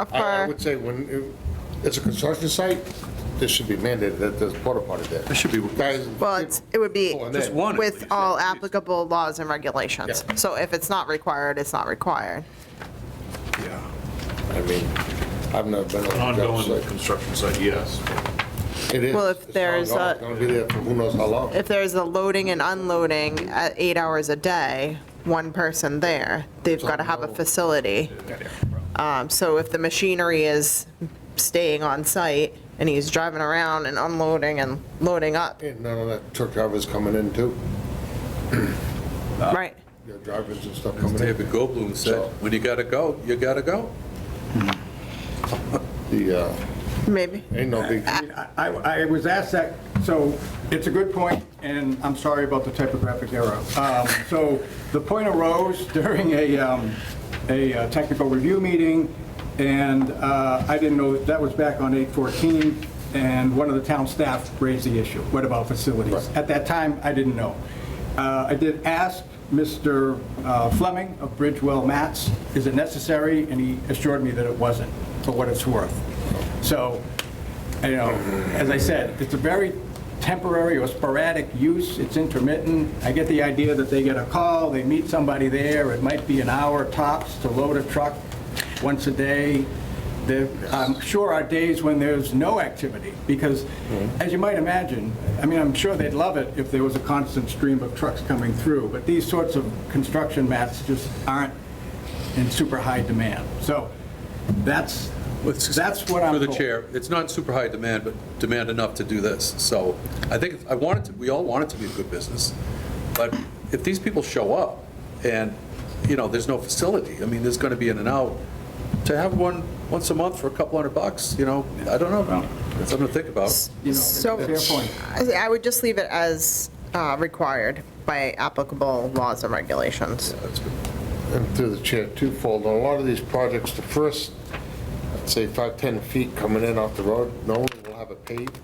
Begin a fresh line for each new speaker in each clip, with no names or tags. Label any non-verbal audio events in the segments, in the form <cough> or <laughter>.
uh,
I I
upper,
would say when it- it's a construction site, this should be mandated that there's porta potty there.
It should be-
Guys-
well, it's, it would be
Oh, and then-
Just one. at
with
least,
all
right?
applicable laws and regulations.
Yeah.
So if it's not required, it's not required.
Yeah.
I mean, I've never been
An
on a job
Ongoing
site.
construction site, yes.
It is.
Well, if
It's
there's
ongoing.
a-
It's gonna be there for who knows how long.
If there's a loading and unloading at eight hours a day, one person there, they've got to have a facility. Um, So if the machinery is staying on site and he's driving around and unloading and loading up,
And none of that truck drivers coming in too,
right?
your drivers and stuff
As
coming
David
in.
Goldblum said, when you gotta go, you gotta go.
The, uh,
Maybe.
ain't no big,
I, I was asked that, so it's a good point, and I'm sorry about the typographic error. Um, So the point arose <laughs> during a, um, a uh, technical review meeting, and uh, I didn't know, that was back on 814, and one of the town staff raised the issue, what about facilities? At that time, I didn't know. Uh, I did ask Mr. uh, Fleming of Bridgewell Mats, is it necessary? And he assured me that it wasn't, for what it's worth. So you know, as I said, it's a very temporary or sporadic use, it's intermittent. I get the idea that they get a call, they meet somebody there, it might be an hour tops to load a truck once a day. There, I'm sure are days when there's no activity, because
Mm-hmm.
as you might imagine, I mean, I'm sure they'd love it if there was a constant stream of trucks coming through, but these sorts of construction mats just aren't in super high demand. So that's, that's what I'm
For
told.
the chair, it's not super high demand, but demand enough to do this. So I think, I want it to, we all want it to be a good business, but if these people show up and, you know, there's no facility, I mean, there's gonna be in and out, to have one once a month for a couple hundred bucks, you know, I don't know, that's something to think about.
You know,
So-
fair point.
I I would just leave it as uh, required by applicable laws and regulations.
and through the chair, twofold, on a lot of these projects, the first, I'd say five, 10 feet coming in off the road, no one will have it paved.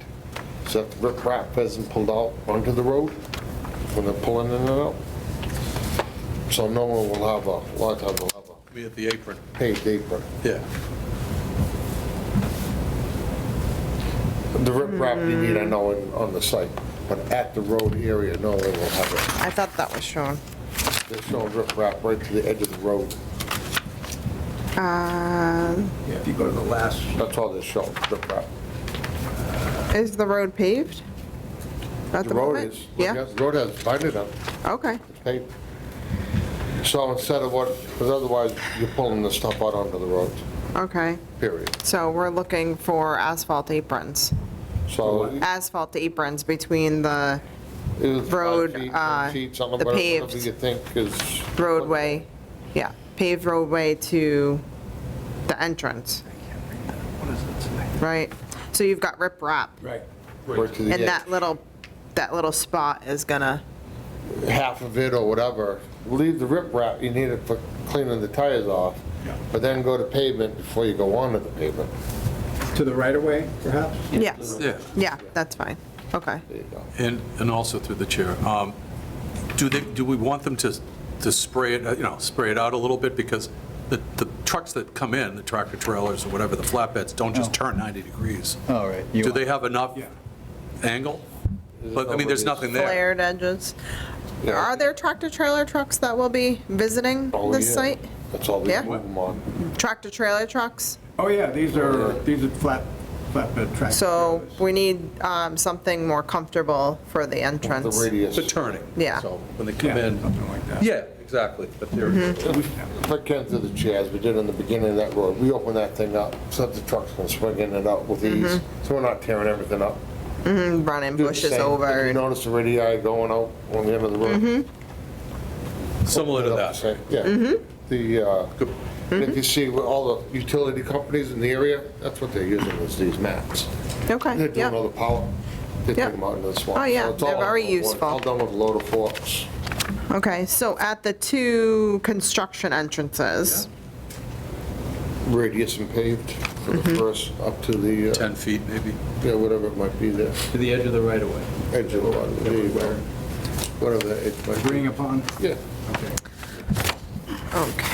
So that the riprap hasn't pulled out onto the road when they're pulling in and out. So no one will have a, a lot of them will have
Be at the apron,
a paved apron.
yeah.
The riprap you need, I know, in- on the site, but at the road area, no one will have
I thought that was shown.
it. There's showing riprap right to the edge of the road.
Um,
Yeah, If you go to the last,
That's all they're showing, riprap.
Is the road paved? At
The
the
road
moment?
is,
Yeah,
the road has binded up.
okay.
Okay. So instead of what, because otherwise you're pulling the stuff out onto the road,
Okay,
period.
so we're looking for asphalt aprons,
So.
asphalt aprons between the
it was five
Road,
feet, ten
uh,
feet, something,
the
whatever- Whatever
paved
you think is.
roadway, yeah, paved roadway to the entrance, right? So you've got riprap,
right.
Right to the
and
edge.
that little, that little spot is gonna,
Half of it or whatever. Leave the riprap, you need it for cleaning the tires off, but then go to pavement before you go onto the pavement.
To the right of way, perhaps?
yes,
Yeah.
yeah, that's fine, okay.
There you go.
And, and also through the chair, um, do they, do we want them to, to spray it, uh, you know, spray it out a little bit? Because the, the trucks that come in, the tractor trailers or whatever, the flatbeds, don't just turn 90 degrees.
All right.
Do they have enough
Yeah.
angle? But, I mean, there's nothing there.
Flared edges.
Yeah.
Are there tractor trailer trucks that will be visiting
Oh,
this
yeah.
site?
That's all we
Yeah.
move them on.
Tractor trailer trucks?
Oh, yeah, these are, these are flat, flatbed tracks.
So we need um, something more comfortable for the
The
entrance.
radius.
The turning.
Yeah.
So when they
Yeah,
come in,
something like that.
yeah, exactly. But they're,
Mm-hmm.
Put Ken through the chair, as we did in the beginning of that road, we open that thing up, so that the trucks can swing in and out with ease, so we're not tearing everything up.
Running
Do the
Mm-hmm. bushes
same. If
over.
You
and- Mm-hmm.
notice the radii going out on the end of the road?
similar to that.
Same, Yeah. The, uh,
Mm-hmm.
if you see where all the utility companies in the area, that's what they're using, is these maps. They're
Okay,
doing
yeah.
all the power, they
Yeah.
take them out into the swamp.
Oh, yeah,
So it's all
they're very
on one-
useful.
All done with a load of forks.
Okay, so at the two construction entrances,
radius and paved for the
Mm-hmm.
first, up to the, uh,
10 feet maybe.
yeah, whatever it might be there,
To the edge of the right of way.
edge of the lot, there you go. Whatever it might be.
Agreeing upon?
Yeah.
Okay.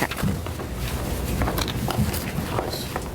okay.